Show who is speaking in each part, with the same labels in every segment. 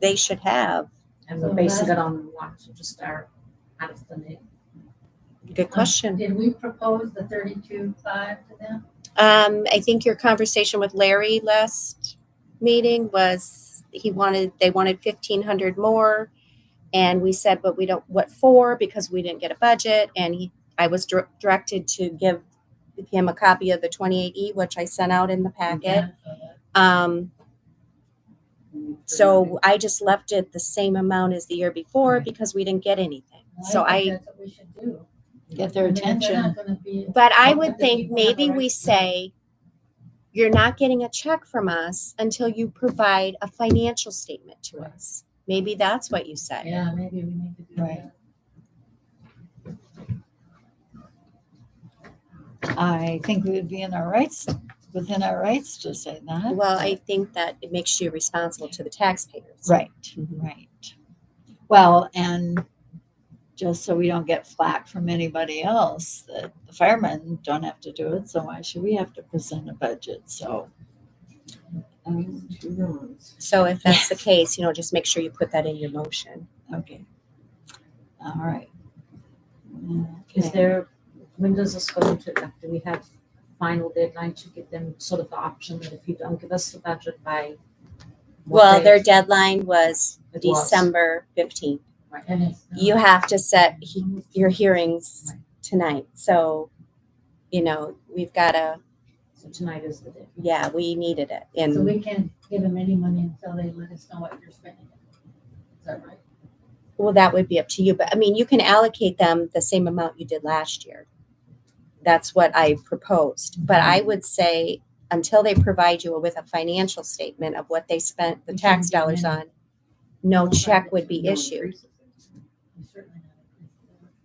Speaker 1: they should have?
Speaker 2: And
Speaker 1: Mm-hmm.
Speaker 2: we're basing it on what, so just our, out of the name.
Speaker 1: Good question.
Speaker 3: Did we propose the thirty-two five to them?
Speaker 1: Um, I think your conversation with Larry last meeting was he wanted, they wanted fifteen hundred more. And we said, but we don't, what for? Because we didn't get a budget and he, I was dir- directed to give him a copy of the twenty-eight E, which I sent out in the packet. Um, so I just left it the same amount as the year before because we didn't get anything. So
Speaker 3: think
Speaker 1: I,
Speaker 3: That's what we should do.
Speaker 4: Get their
Speaker 3: I mean, if they're
Speaker 4: attention.
Speaker 3: not gonna be-
Speaker 1: but I
Speaker 3: Well,
Speaker 1: would
Speaker 3: if
Speaker 1: think
Speaker 3: people have a
Speaker 1: maybe
Speaker 3: right
Speaker 1: we
Speaker 3: to-
Speaker 1: say, you're not getting a check from us until you provide a financial statement to
Speaker 3: Right.
Speaker 1: us. Maybe that's what you say.
Speaker 3: Yeah, maybe we need to do
Speaker 4: Right.
Speaker 3: that.
Speaker 4: I think we would be in our rights, within our rights to say that.
Speaker 1: Well, I think that it makes you responsible to the taxpayers.
Speaker 4: Right, right. Well, and just so we don't get flack from anybody else, that the firemen don't have to do it, so why should we have to present a budget, so. um,
Speaker 1: So if that's the case, you know, just make sure you put that in your motion.
Speaker 4: Okay. All right.
Speaker 2: Is
Speaker 4: Okay.
Speaker 2: there, when does this go into, effect? do we have final deadline to give them sort of the option that if you don't give us the budget by? what
Speaker 1: Well,
Speaker 2: date
Speaker 1: their deadline was
Speaker 2: it was?
Speaker 1: December fifteenth.
Speaker 3: And it's.
Speaker 1: You have to set he- your hearings tonight. So, you know, we've got to,
Speaker 2: So tonight is the day.
Speaker 1: yeah, we needed it.
Speaker 3: So
Speaker 1: And,
Speaker 3: we can't give them any money until they let us know what you're spending. Is that right?
Speaker 1: well, that would be up to you. But I mean, you can allocate them the same amount you did last year. That's what I proposed. But
Speaker 3: Mm-hmm.
Speaker 1: I would say until they provide you with a financial statement of what they spent the
Speaker 3: You shouldn't
Speaker 1: tax
Speaker 3: give them
Speaker 1: dollars
Speaker 3: any.
Speaker 1: on, no
Speaker 3: Well, right,
Speaker 1: check
Speaker 3: that's
Speaker 1: would be
Speaker 3: no
Speaker 1: issued.
Speaker 3: We certainly not.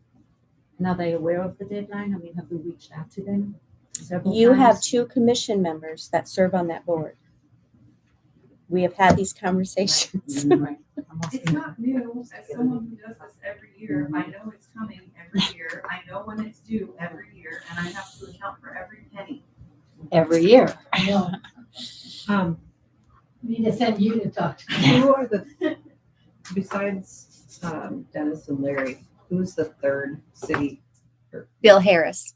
Speaker 2: And are they aware of the deadline? I mean, have we reached out to them? several
Speaker 1: You have
Speaker 2: times?
Speaker 1: two commission members that serve on that board. We have had these conversations.
Speaker 2: Right. I'm
Speaker 5: It's
Speaker 2: asking-
Speaker 5: not new, as someone who does this every year, I know it's coming every year, I know when it's due every year, and I have to account for every penny.
Speaker 4: Every year.
Speaker 3: I know,
Speaker 6: Um,
Speaker 3: we need to send you to talk to them.
Speaker 6: who are the, besides, um, Dennis and Larry, who's the third city?
Speaker 1: Bill Harris.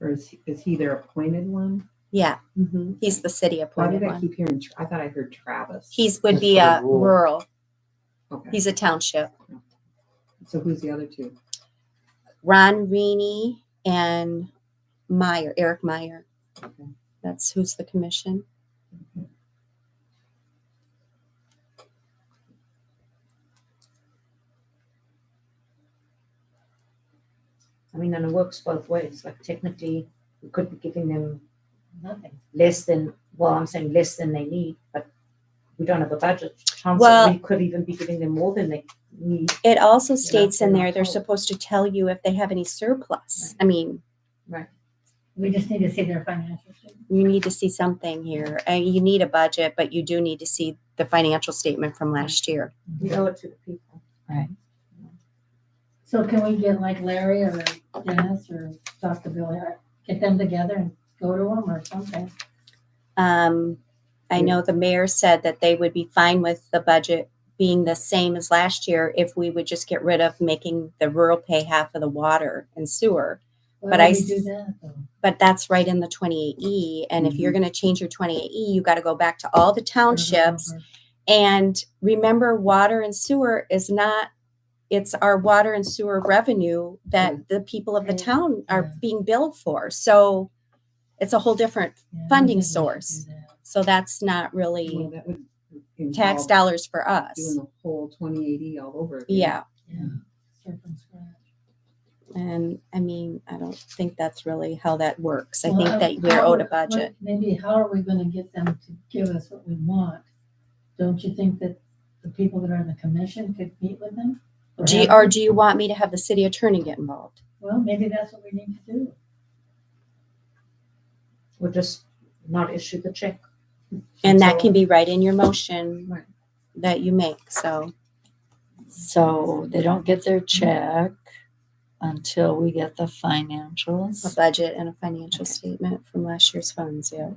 Speaker 6: Or is, he- is he their appointed one?
Speaker 1: Yeah,
Speaker 3: Mm-hmm.
Speaker 1: mhm. he's the city
Speaker 6: Why
Speaker 1: appointed
Speaker 6: did I
Speaker 1: one.
Speaker 6: keep hearing, Tra- I thought I heard Travis.
Speaker 1: He's would
Speaker 7: That's
Speaker 1: be
Speaker 7: by
Speaker 1: a
Speaker 7: rule.
Speaker 1: rural.
Speaker 6: Okay,
Speaker 1: He's a township.
Speaker 6: so who's the other two?
Speaker 1: Ron Reaney and Meyer, Eric Meyer. That's who's the commission.
Speaker 2: I mean, and it works both ways. Like technically, we could be giving them
Speaker 3: Nothing.
Speaker 2: less than, well, I'm saying less than they need, but we don't have a budget. Chances
Speaker 1: Well-
Speaker 2: we could even be giving them more than they need.
Speaker 1: It also states in
Speaker 2: they're
Speaker 1: there,
Speaker 2: not
Speaker 1: they're
Speaker 2: told.
Speaker 1: supposed to tell you if they have any surplus. I mean,
Speaker 3: We just need to see their financial statement.
Speaker 1: you need to see something here. Uh, You need a budget, but you do need to see the financial statement from last year.
Speaker 2: We owe it to the people.
Speaker 3: So can we get like Larry or Dennis or Dr. Bill, Har- get them together and go to them or something?
Speaker 1: Um, I
Speaker 6: Yeah.
Speaker 1: know the mayor said that they would be fine with the budget being the same as last year if we would just get rid of making the rural pay half of the water and sewer.
Speaker 3: Why
Speaker 1: But
Speaker 3: would
Speaker 1: I
Speaker 3: we
Speaker 1: s-
Speaker 3: Do that though?
Speaker 1: But that's right in the 28E. And if
Speaker 3: Mm-hmm.
Speaker 1: you're going to change your 28E, you got to go back to all the townships.
Speaker 3: Mm-hmm.
Speaker 1: And remember, water and sewer is not, it's our water and sewer revenue that the people of the
Speaker 3: Mm. Right.
Speaker 1: town
Speaker 3: Yeah.
Speaker 1: are being billed for. So it's a whole different,
Speaker 3: Yeah, I don't
Speaker 1: funding
Speaker 3: think we should do
Speaker 1: source.
Speaker 3: that.
Speaker 1: so that's not
Speaker 6: Well,
Speaker 1: really
Speaker 6: that would
Speaker 1: tax
Speaker 6: involve
Speaker 1: dollars for
Speaker 6: Doing
Speaker 1: us.
Speaker 6: the whole twenty eighty all over. again.
Speaker 1: Yeah.
Speaker 3: Yeah, start from scratch.
Speaker 1: And I mean, I don't think that's really how that works. I
Speaker 3: Well,
Speaker 1: think
Speaker 3: how-
Speaker 1: that we're
Speaker 3: how
Speaker 1: owed a
Speaker 3: are- what-
Speaker 1: budget.
Speaker 3: Maybe how are we gonna get them to give us what we want? Don't you think that the people that are in the commission could meet with them? Or
Speaker 1: Do you,
Speaker 3: have-
Speaker 1: or do you want me to have the city attorney get involved?
Speaker 3: Well, maybe that's what we need to do.
Speaker 2: We'll just not issue the check.
Speaker 1: And that
Speaker 2: So-
Speaker 1: can be right in your motion
Speaker 2: Right.
Speaker 1: that you make, so.
Speaker 4: So they don't get their check until we get the
Speaker 1: A
Speaker 4: financials.
Speaker 1: budget and a financial statement from last year's funds, yeah.